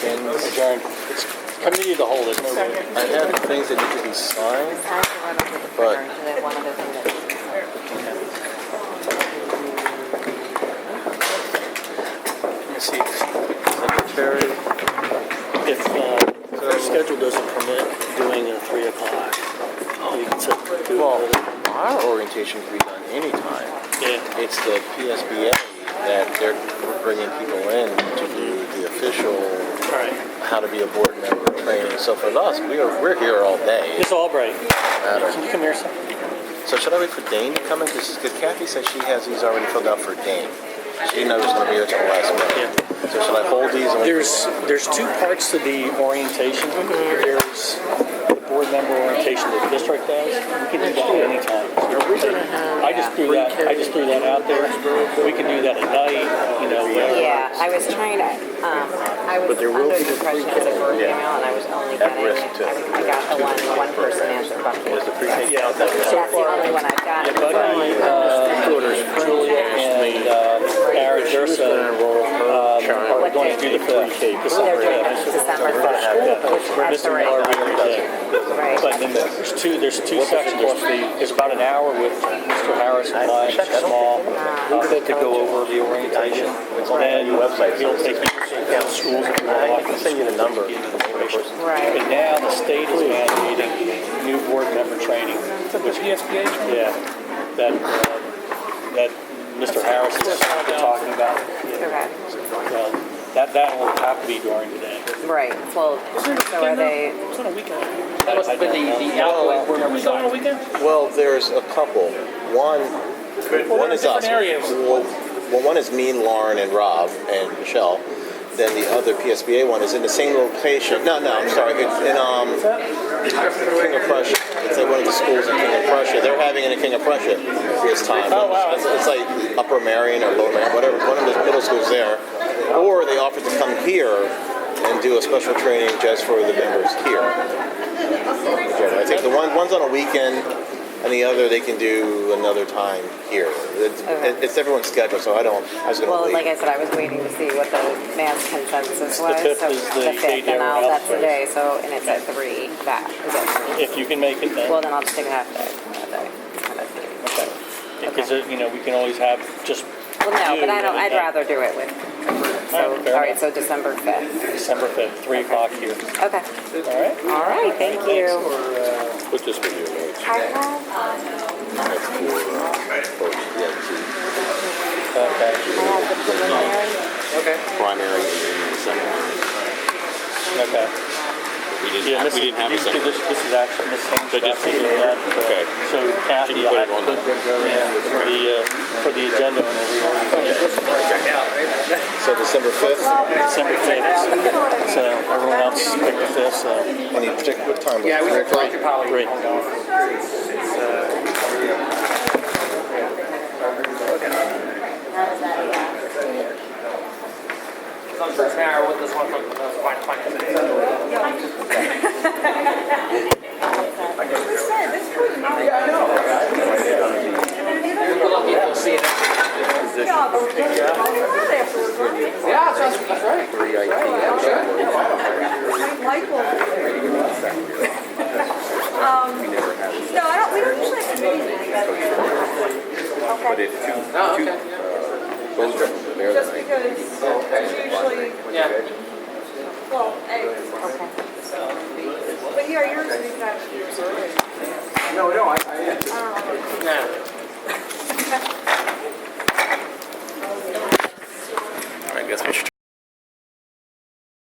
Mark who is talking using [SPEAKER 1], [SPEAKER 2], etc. [SPEAKER 1] adjourn. It's committee of the whole, isn't it?
[SPEAKER 2] I have things that need to be signed.
[SPEAKER 3] Besides the run up with the
[SPEAKER 2] But-
[SPEAKER 3] printer, do they have one other thing that needs to be signed?
[SPEAKER 1] Let me see.
[SPEAKER 2] Secretary,
[SPEAKER 4] If uh, our schedule doesn't permit doing a 3 o'clock, you can set to do
[SPEAKER 2] well,
[SPEAKER 4] it.
[SPEAKER 2] our orientation can be done anytime.
[SPEAKER 4] Yeah,
[SPEAKER 2] It's the PSBA that they're bringing people in to do the official
[SPEAKER 4] all right.
[SPEAKER 2] how to be a board member training. So for us, we are, we're here all day. It
[SPEAKER 4] Ms. Albright,
[SPEAKER 2] doesn't matter.
[SPEAKER 4] can you come here, sir?
[SPEAKER 2] So should I wait for Dane to come in? Because Kathy said she has these already filled out for Dane. She knows she's going to be here till the last minute. So should I hold these? and wait for-
[SPEAKER 4] There's, there's two parts to the orientation. There's the board member orientation the district does. We can do that anytime.
[SPEAKER 2] Are we gonna have-
[SPEAKER 4] I just threw that, I just threw that out there. We can do that at night, you know, whatever.
[SPEAKER 3] Yeah, I was trying to, um, I was
[SPEAKER 2] But there will
[SPEAKER 3] under
[SPEAKER 2] be
[SPEAKER 3] the impression it was a group
[SPEAKER 2] yeah.
[SPEAKER 3] email and I was only
[SPEAKER 2] At
[SPEAKER 3] getting,
[SPEAKER 2] risk to-
[SPEAKER 3] I I got the one, the one person answered bucket.
[SPEAKER 2] Was the precinct
[SPEAKER 4] Yeah.
[SPEAKER 2] out that way?
[SPEAKER 3] That's the only one I've got.
[SPEAKER 4] Yeah, Buddy, uh, Julia, and uh, Aaron Dursa uh, are going to do the 3K.
[SPEAKER 3] They're doing it December first,
[SPEAKER 4] We're
[SPEAKER 3] at
[SPEAKER 4] missing
[SPEAKER 3] three,
[SPEAKER 4] our regular day. But
[SPEAKER 3] right?
[SPEAKER 4] then there's two, there's two sections. There's the, there's about an hour with Mr. Harris and I, Mr. Hall, uh, to go over the orientation. Then he'll take you down schools if you
[SPEAKER 2] I
[SPEAKER 4] want.
[SPEAKER 2] can send you the number.
[SPEAKER 3] Right.
[SPEAKER 4] But now the state is mandating new board member training, which ESPA Yeah, that, uh, that Mr. Harris is talking about.
[SPEAKER 3] Correct.
[SPEAKER 4] Well, That, that will have to be during the day.
[SPEAKER 3] Right, well, so are they,
[SPEAKER 1] It's on a weekend.
[SPEAKER 5] That must have been the, the outgoing board member
[SPEAKER 1] It's on a
[SPEAKER 5] side.
[SPEAKER 1] weekend?
[SPEAKER 2] Well, there's a couple. One, one is us.
[SPEAKER 1] different areas.
[SPEAKER 2] Well, well, one is me and Lauren and Rob and Michelle. Then the other PSBA one is in the same location. No, no, I'm sorry. It's in um, King of Prussia. It's at one of the schools in King of Prussia. They're having it in King of Prussia this time.
[SPEAKER 1] Oh, wow.
[SPEAKER 2] It's, it's like Upper Marion or Lower Marion, whatever. One of the middle schools there. Or they offered to come here and do a special training just for the members here. Yeah, I think the one, one's on a weekend, and the other they can do another time here. It's,
[SPEAKER 3] Okay.
[SPEAKER 2] it's everyone's schedule, so I don't, I was gonna
[SPEAKER 3] well,
[SPEAKER 2] leave.
[SPEAKER 3] like I said, I was waiting to see what the mass consensus was.
[SPEAKER 4] fifth
[SPEAKER 3] so
[SPEAKER 4] is the
[SPEAKER 3] fifth,
[SPEAKER 4] day
[SPEAKER 3] And
[SPEAKER 4] everyone
[SPEAKER 3] I'll,
[SPEAKER 4] else
[SPEAKER 3] that's the
[SPEAKER 4] plays.
[SPEAKER 3] day, so, and it's at three, that is it.
[SPEAKER 4] If you can make it
[SPEAKER 3] Well,
[SPEAKER 4] then.
[SPEAKER 3] then I'll just take a half day. half day, half day.
[SPEAKER 4] Okay. Because, uh, you know, we can always have just.
[SPEAKER 3] Well, no, but I don't, I'd
[SPEAKER 4] you and
[SPEAKER 3] rather do it with,
[SPEAKER 4] All
[SPEAKER 3] so,
[SPEAKER 4] right, fair
[SPEAKER 3] all right,
[SPEAKER 4] enough.
[SPEAKER 3] so December 5th.
[SPEAKER 4] December 5th, 3 o'clock here.
[SPEAKER 3] Okay,
[SPEAKER 4] All right?
[SPEAKER 3] all right, thank you.
[SPEAKER 2] Put this with your notes.
[SPEAKER 3] Carla?
[SPEAKER 2] That's cool. Yeah,
[SPEAKER 4] Okay,
[SPEAKER 3] I have the preliminary.
[SPEAKER 2] it's the Primary and secondary.
[SPEAKER 4] okay.
[SPEAKER 6] We
[SPEAKER 4] Yeah,
[SPEAKER 6] didn't,
[SPEAKER 4] this
[SPEAKER 6] have- we
[SPEAKER 4] is- these-
[SPEAKER 6] didn't have a second.
[SPEAKER 4] This, this is actually Miss Haynes.
[SPEAKER 6] So just
[SPEAKER 4] actually
[SPEAKER 6] take
[SPEAKER 4] did that.
[SPEAKER 6] it. Okay.
[SPEAKER 4] So Kathy,
[SPEAKER 6] Didn't put
[SPEAKER 4] I
[SPEAKER 6] it on
[SPEAKER 4] put, yeah, for the, uh, for the agenda and everything.
[SPEAKER 2] So December fifth,
[SPEAKER 4] December fifth, so everyone else picked the fifth, so.
[SPEAKER 2] any particular time?
[SPEAKER 5] Yeah, we
[SPEAKER 2] Three
[SPEAKER 5] should
[SPEAKER 2] o'clock?
[SPEAKER 5] talk to Polly.
[SPEAKER 4] Great.
[SPEAKER 5] Because I'm so narrow with this one from the fine, fine committee. We're lucky if we'll see it. Yeah, that's right, that's right. That's right.
[SPEAKER 7] No, Um, I don't, we don't usually have committees like that. Okay,
[SPEAKER 5] Oh, okay.
[SPEAKER 7] just because it's usually,
[SPEAKER 5] Yeah.
[SPEAKER 7] well, eggs. But yeah, yours is not yours early.
[SPEAKER 5] Yeah.
[SPEAKER 6] I guess we should